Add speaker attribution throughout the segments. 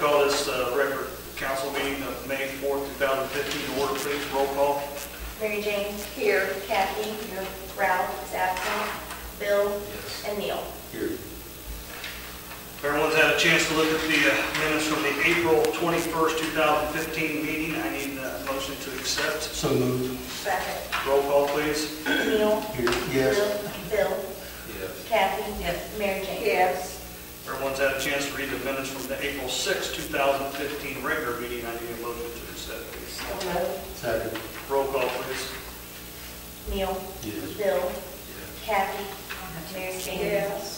Speaker 1: call this uh, record council meeting of May 4th, 2015 to order, please. Roll call.
Speaker 2: Mary Jane? Here. Kathy? Here. Ralph is absent. Bill?
Speaker 3: Yes.
Speaker 2: And Neil?
Speaker 3: Here.
Speaker 1: Everyone's had a chance to look at the uh, minutes from the April 21st, 2015 meeting. I need uh, a motion to accept.
Speaker 3: So moved.
Speaker 2: Second.
Speaker 1: Roll call, please.
Speaker 2: Neil?
Speaker 3: Here.
Speaker 2: Bill? Bill?
Speaker 3: Yes.
Speaker 2: Kathy? Yes. Mary Jane?
Speaker 4: Yes.
Speaker 1: Everyone's had a chance to read the minutes from the April 6th, 2015 regular meeting. I need a motion to accept, please.
Speaker 2: So moved.
Speaker 3: Second.
Speaker 1: Roll call, please.
Speaker 2: Neil?
Speaker 3: Yes.
Speaker 2: Bill?
Speaker 3: Yes.
Speaker 2: Kathy? Mary Jane?
Speaker 4: Yes.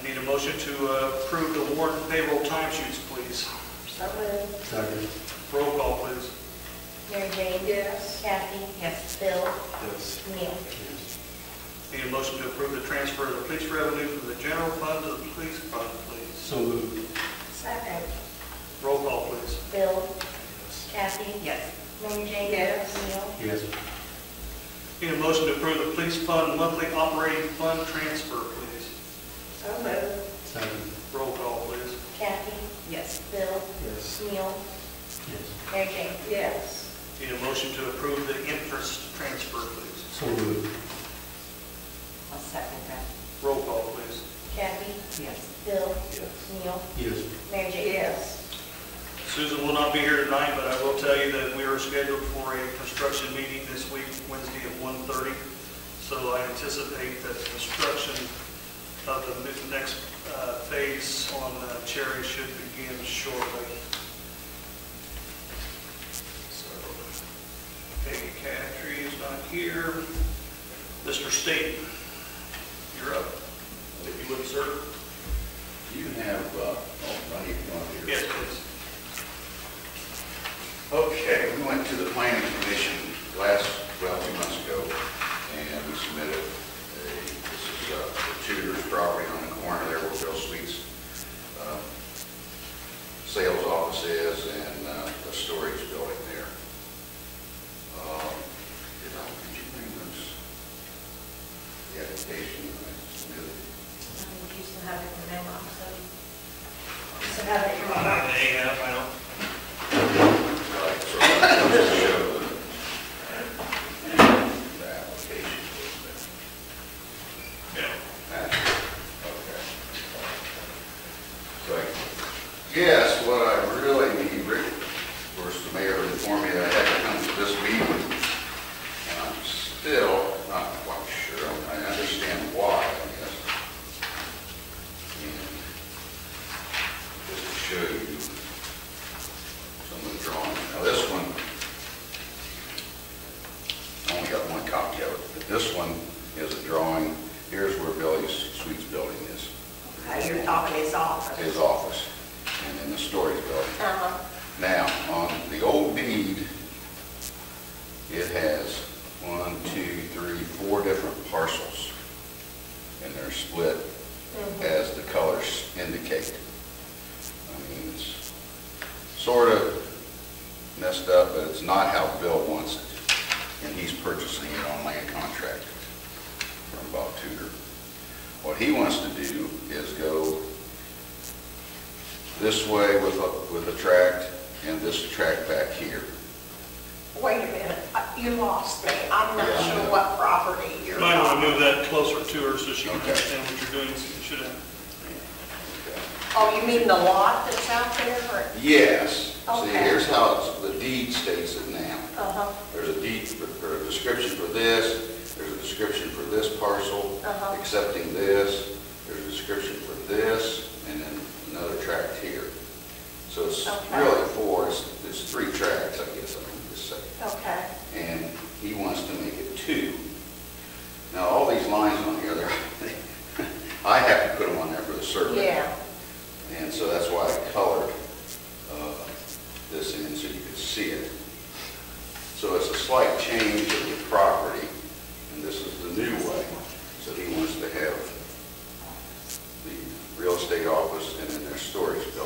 Speaker 1: I need a motion to uh, approve the warrant and payroll timesheets, please.
Speaker 4: So moved.
Speaker 3: Second.
Speaker 1: Roll call, please.
Speaker 2: Mary Jane?
Speaker 4: Yes.
Speaker 2: Kathy? Yes. Bill?
Speaker 3: Yes.
Speaker 2: Neil?
Speaker 3: Yes.
Speaker 1: Need a motion to approve the transfer of the police revenue from the general fund to the police fund, please.
Speaker 3: So moved.
Speaker 2: Second.
Speaker 1: Roll call, please.
Speaker 2: Bill?
Speaker 3: Yes.
Speaker 2: Kathy?
Speaker 4: Yes.
Speaker 2: Mary Jane?
Speaker 4: Yes.
Speaker 2: Neil?
Speaker 3: Yes.
Speaker 1: Need a motion to approve the police fund monthly operating fund transfer, please.
Speaker 4: So moved.
Speaker 3: Second.
Speaker 1: Roll call, please.
Speaker 2: Kathy?
Speaker 4: Yes.
Speaker 2: Bill?
Speaker 3: Yes.
Speaker 2: Neil?
Speaker 3: Yes.
Speaker 2: Mary Jane?
Speaker 4: Yes.
Speaker 1: Need a motion to approve the interest transfer, please.
Speaker 3: So moved.
Speaker 4: I'll second that.
Speaker 1: Roll call, please.
Speaker 2: Kathy?
Speaker 4: Yes.
Speaker 2: Bill?
Speaker 3: Yes.
Speaker 2: Neil?
Speaker 3: Yes.
Speaker 2: Mary Jane?
Speaker 4: Yes.
Speaker 1: Susan will not be here tonight, but I will tell you that we are scheduled for a construction meeting this week, Wednesday at 1:30. So I anticipate that construction of the mi- next uh, phase on uh, Cherry should begin shortly. So Peggy Catree is not here. Mr. State, you're up. If you would, sir.
Speaker 5: You have, uh, oh, right here, one here.
Speaker 1: Yes, please.
Speaker 5: Okay, we went to the planning commission last, well, two months ago, and we submitted a, this is uh, the Tudor's property on the corner there where Bill Sweet's um, sales office is and uh, a storage building there. Um, Did I, did you bring this? The application I submitted?
Speaker 2: You still have it in the memo, so. You still have it in your
Speaker 1: I
Speaker 2: memo.
Speaker 1: have, I don't
Speaker 5: Right, so that does show the- the application was
Speaker 1: Yeah.
Speaker 5: there. Okay. So, yes, what I really need, Rick, of course, the mayor informed me that I had to come to this meeting. And I'm still not quite sure, I understand why, I guess. And Just to show you some of the drawings. Now, this one, I only got one copy of it, but this one is a drawing, here's where Billy's Suites building is,
Speaker 4: Okay, you're talking his office.
Speaker 5: his office, and then the storage building.
Speaker 4: Uh-huh.
Speaker 5: Now, on the old deed, it has one, two, three, four different parcels, and they're split as the colors indicate. I mean, it's sort of messed up, but it's not how Bill wants it, and he's purchasing it on land contract from Bob Tudor. What he wants to do is go this way with a, with a tract, and this tract back here.
Speaker 4: Wait a minute, Uh, you lost me. I'm not
Speaker 5: Yeah.
Speaker 4: sure what property you're
Speaker 1: You Might want to
Speaker 4: on.
Speaker 1: move that closer to her so she can
Speaker 5: Okay.
Speaker 1: understand what you're doing, so you should have.
Speaker 4: Oh, you mean the lot that's out there or?
Speaker 5: Yes, see,
Speaker 4: Okay.
Speaker 5: here's how it's- the deed states it now.
Speaker 4: Uh-huh,
Speaker 5: There's a deed, for- or a description for this, there's a description for this parcel,
Speaker 4: Uh-huh.
Speaker 5: accepting this, there's a description for this, and then another tract here. So it's
Speaker 4: Okay.
Speaker 5: really four, it's, it's three tracts, I guess, I can just say.
Speaker 4: okay.
Speaker 5: and he wants to make it two. Now, all these lines on here, they're, I have to put them on there for the survey.
Speaker 4: Yeah,
Speaker 5: And so that's why I colored uh, this in so you could see it. So it's a slight change of the property, and this is the new way. So he wants to have the real estate office and then their storage building.